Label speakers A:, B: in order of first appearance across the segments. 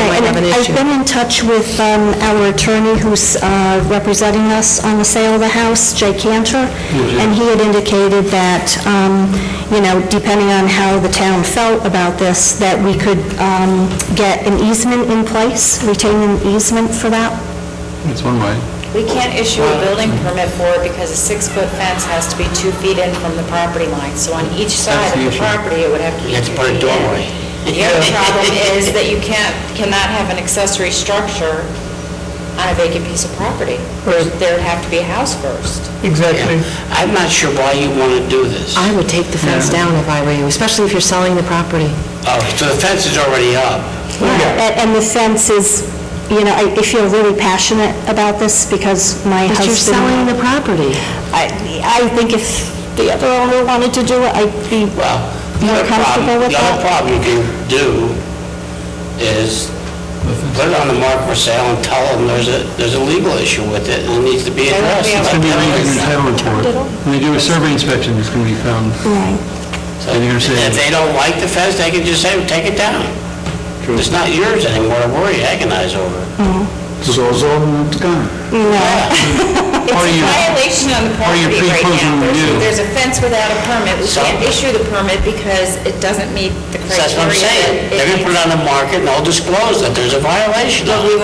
A: an issue.
B: I've been in touch with um, our attorney who's uh, representing us on the sale of the house, Jay Cantor, and he had indicated that, um, you know, depending on how the town felt about this, that we could um, get an easement in place, retain an easement for that.
C: It's one way.
D: We can't issue a building permit for it because a six-foot fence has to be two feet in from the property line. So on each side of the property, it would have to be
E: You have
D: two
E: to put a
D: feet
E: doorway.
D: in. The other problem is that you can't, cannot have an accessory structure on a vacant piece of property.
A: Right.
D: There'd have to be a house first.
A: Exactly.
E: Yeah. I'm not sure why you want to do this.
F: I would take the fence down if I were you, especially if you're selling the property.
E: Oh, so the fence is already up.
B: A- And the fence is, you know, I I feel really passionate about this because my husband...
F: But you're selling the property.
B: I I think if the other owner wanted to do it, I'd be
E: Well, the
B: more
E: other
B: comfortable
E: problem,
B: with
E: the other
B: that.
E: problem you can do is put it on the market for sale and tell them there's a, there's a legal issue with it and it needs to be addressed.
D: be able
C: It's going to be a
E: Let
C: legal
E: them know.
C: entitlement for it. When they do a survey inspection, it's going to be found.
B: Right.
C: And you're saying-
E: If they don't like the fence, they can just say, take it down. It's not yours anymore to worry, agonize over.
C: So it's all, it's gone.
D: It's
C: Or
D: a
C: you-
D: violation on the
C: or you
D: property right
C: pre-closing
D: now.
C: review.
D: There's- There's a fence without a permit. We
E: So-
D: can't issue the permit because it doesn't meet the
E: So That's what I'm
D: criteria.
E: saying.
D: It-
E: They're gonna put it on the market and they'll disclose that there's a violation of it.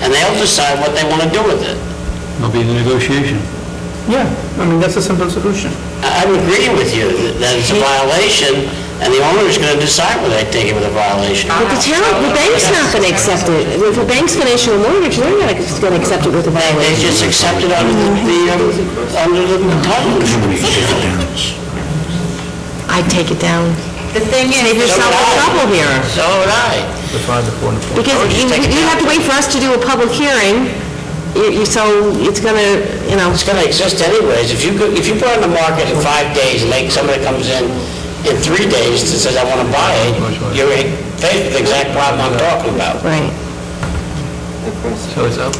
E: And they'll decide what they want to do with it.
C: It'll be the negotiation.
A: Yeah, I mean, that's a simple solution.
E: I- I'm agreeing with you that it's a violation and the owner's gonna decide whether they think it was a violation.
F: But the town, the bank's not going to accept it. If the bank's going to issue a mortgage, they're not going to accept it with a
E: They
F: violation.
E: just accept it under the- the, um, under the title.
F: I'd take it down.
D: The thing is...
F: Save yourself the trouble here.
E: So would I.
F: Because you you have to wait for us to do a public hearing, You- you- so it's going to, you know,
E: It's gonna exist anyways. If you, go- if you put it on the market in five days and like somebody comes in in three days and says, I wanna buy it, you're in face with the exact problem I'm talking about.
F: right.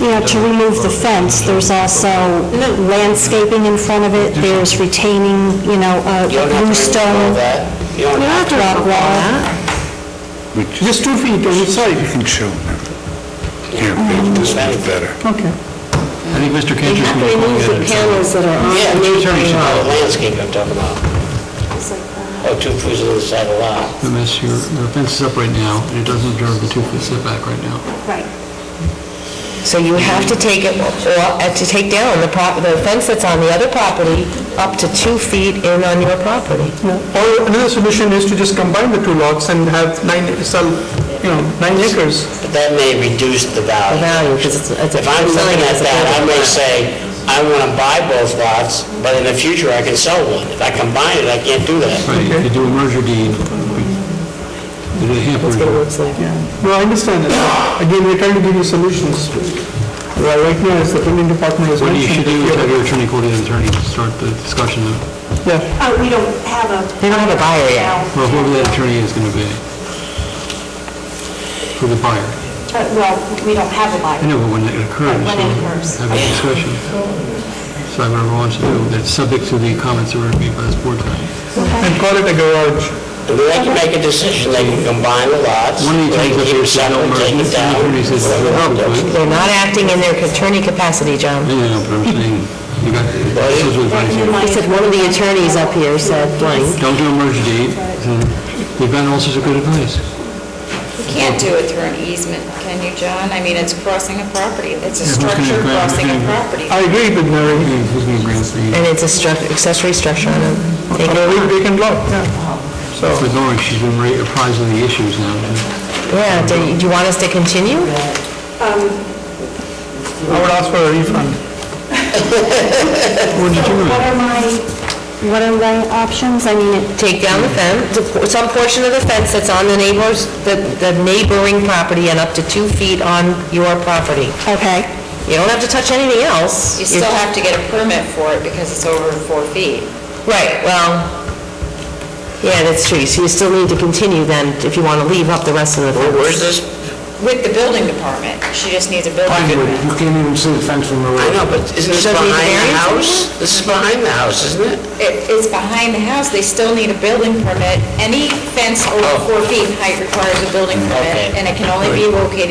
B: Yeah, to remove the fence, there's also landscaping in front of it, there's retaining, you know, a
E: You don't
B: a blue
E: have to remove all
B: stone
E: that. You don't have to.
B: rock wall.
A: Just two feet on each side.
G: You can show them. Here, babe, this one's better.
A: Okay.
C: I think Mr.
F: They
C: Kincher's
F: have to
C: going to look
F: remove
C: at
F: the
C: it.
F: panels that are on
E: Yeah,
F: the
E: two
F: main
E: attorneys should know
F: wall.
E: the landscape I'm talking about. Oh, two foods on the side of the lot.
C: Unless your, your fence is up right now, and it doesn't observe the two-foot setback right now.
F: So you have to take it, or uh, to take down the prop, the fence that's on the other property up to two feet in on your property.
A: Or another solution is to just combine the two lots and have nine, sell, you know, nine acres.
E: But that may reduce the
F: The
E: value.
F: value, because it's, it's a
E: If I'm
F: selling
E: looking
F: it
E: at
F: as a
E: that, I
F: building.
E: may say, I want to buy both lots, but in the future I can sell one. If I combine it, I can't do that.
C: Right, if you do a merger deed, you do a hamper deed.
A: No, I understand that. Again, we're trying to give you solutions. Well, Right now, as the building department is
C: What you
A: mentioning...
C: should do is have your attorney call the other attorney to start the discussion of,
A: Yeah,
B: Oh, we don't have a...
F: They don't have a buyer yet.
C: well, whoever that attorney is going to be. For the buyer.
B: Uh, Well, we don't have a
C: I
B: buyer.
C: know, but when it occurs,
B: When it occurs.
C: we'll have a discussion. So whoever wants to do, that's subject to the comments that were made by this board tonight.
A: and call it a garage.
E: And then they can make a decision, they can combine the lots,
C: One of the
E: they
C: attorneys up
E: can keep
C: there
E: it
C: said don't merge,
E: separate, take
C: and the
E: it down.
C: attorney says it's a
E: whatever.
C: problem.
F: They're not acting in their attorney capacity, John.
C: Yeah, but I'm saying, you got, this is what I'm saying.
F: He said one of the attorneys up here said blank.
C: Don't do a merger deed. We've gotten all sorts of good advice.
D: You can't do it through an easement, can you, John? I mean, it's crossing a property. It's a
C: who's gonna
D: structure
C: grant- who's
D: crossing a
C: gonna grant-
D: property.
A: I agree with Mary.
C: Who's going to grant the,
F: And it's a struct, accessory structure on a
A: On
F: vacant
A: a
F: lot.
A: vacant lot, yeah.
C: for Lori, she's been re- apprised of the issues now.
F: Yeah, do you- do you want us to continue?
A: I would ask for a refund.
C: What did you do?
B: What are my, what are my options? I mean, it-
F: Take down the fence, the por- some portion of the fence that's on the neighbor's, the the neighboring property and up to two feet on your property.
B: okay,
F: You don't have to touch anything else.
D: You still have to get a permit for it because it's over four feet.
F: Right, well, yeah, that's true. So you still need to continue then if you want to leave up the rest of the fence.
E: Where's this?
D: With the building department, she just needs a building
G: I know,
D: permit.
G: You can't even see the fence from the
E: I
G: road.
E: know, but isn't this
F: Does that
E: behind
F: need a
E: the
F: variance?
E: house? This is behind the house, isn't it?
D: It- It's behind the house, they still need a building permit. Any fence over
E: Oh.
D: four feet in height requires a building
E: Okay.
D: permit, and it can only be located